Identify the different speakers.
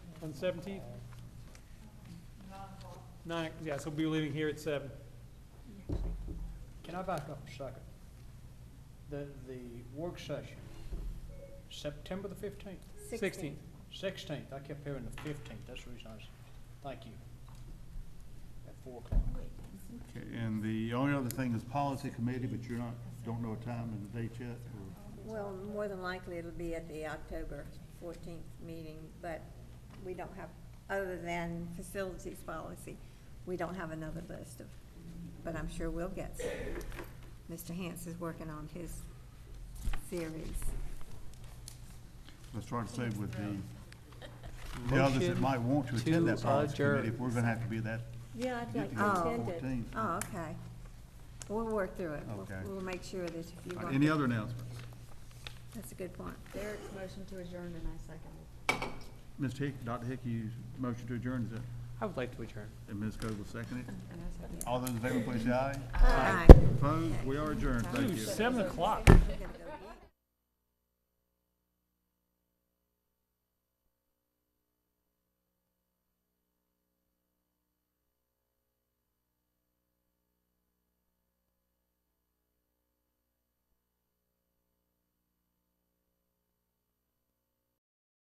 Speaker 1: on the seventeenth? Nine, yeah, so we'll be leaving here at seven.
Speaker 2: Can I back up a second? The, the work session, September the fifteenth,
Speaker 1: Sixteenth.
Speaker 2: sixteenth, I kept hearing the fifteenth, that's the reason I was, thank you. At four o'clock.
Speaker 3: Okay, and the only other thing is policy committee, but you're not, don't know a time and a date yet, or?
Speaker 4: Well, more than likely, it'll be at the October fourteenth meeting, but we don't have, other than facilities policy, we don't have another list of, but I'm sure we'll get some. Mr. Hance is working on his series.
Speaker 3: Let's try to say with the, the others that might want to attend that
Speaker 5: to
Speaker 3: policy committee,
Speaker 5: adjourn.
Speaker 3: if we're gonna have to be that,
Speaker 4: Yeah, I'd
Speaker 3: Get
Speaker 4: like
Speaker 3: together
Speaker 4: to
Speaker 3: on
Speaker 4: attend
Speaker 3: the
Speaker 4: it.
Speaker 3: 14th.
Speaker 4: Oh, okay. We'll work through it. We'll-
Speaker 3: Okay.
Speaker 4: We'll make sure that if you
Speaker 3: All right,
Speaker 4: want.
Speaker 3: any
Speaker 4: to-
Speaker 3: other announcements?
Speaker 4: That's a good point.
Speaker 6: Derek's motion to adjourn and I second it.
Speaker 3: Mr. Hick, Dr. Hick, you motion to adjourn, is it,
Speaker 5: I would like to adjourn.
Speaker 3: and Ms. Coble seconded it?
Speaker 6: And I second it.
Speaker 3: All those in favor, please say aye.
Speaker 4: Aye.
Speaker 3: Opposed, we are adjourned, thank you.
Speaker 1: Ooh, seven o'clock.
Speaker 4: We're gonna go